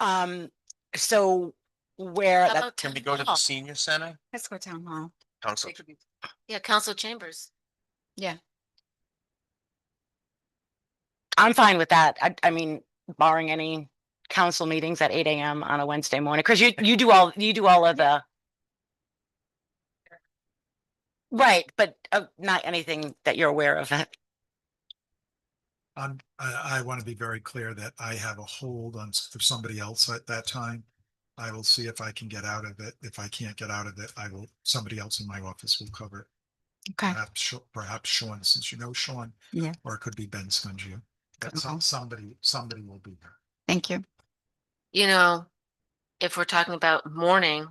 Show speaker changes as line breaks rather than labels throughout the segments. Um, so where
How
that,
about
Can we
town
go to the
hall?
senior center?
Let's go town hall.
Council,
Yeah, council chambers.
I'm fine with that. I, I mean, barring any council meetings at eight AM on a Wednesday morning, because you, you do all, you do all of the. Right, but uh, not anything that you're aware of. uh,
I'm, I, I want to be very clear that I have a hold on s- for somebody else at that time. I will see if I can get out of it. If I can't get out of it, I will, somebody else in my office will cover it.
Okay.
Perhaps, Sha- perhaps Sean, since you know Sean.
Yeah.
Or it could be Ben Scungio. But
Okay.
some, somebody, somebody will be there.
Thank you.
You know, if we're talking about morning,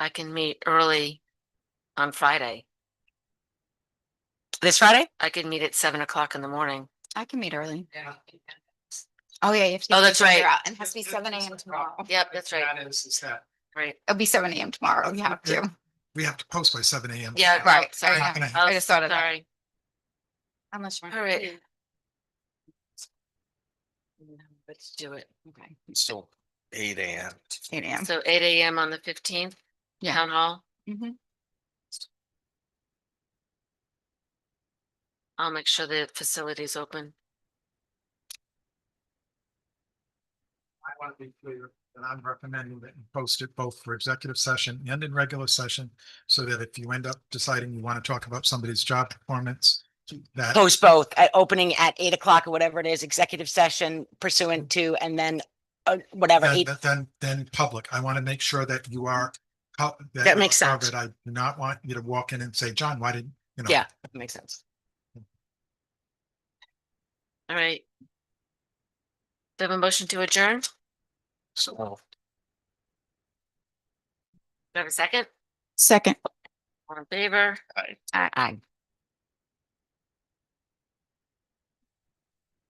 I can meet early on Friday.
This Friday?
I could meet at seven o'clock in the morning.
I can meet early. Oh, yeah. you have to
Oh,
get
that's
your calendar
right.
out, And it has to be seven AM tomorrow.
Yep, that's right,
That is, is that
right.
It'll be seven AM tomorrow. You have to.
we have to post by seven AM.
Yeah,
Right,
right, sorry. Oh,
Not gonna
I just thought of that.
Sorry,
Unless you're.
all right. Let's do it.
Okay.
so eight AM.
Eight AM.
So eight AM on the fifteenth,
Yeah.
town hall.
Mhm.
I'll make sure the facility's open.
I want to be clear that I'm recommending that you post it both for executive session and in regular session. So that if you end up deciding you want to talk about somebody's job performance, that,
Post both, at opening at eight o'clock or whatever it is, executive session pursuant to, and then uh, whatever,
then,
eight,
then- then, then public. I want to make sure that you are. co-
That makes
you're covered.
sense.
I do not want you to walk in and say, John, why didn't, you know?
yeah, makes sense.
All right. Do I have a motion to adjourn? Do
So
I have a second?
Second.
All in favor?
Aye.
Aye.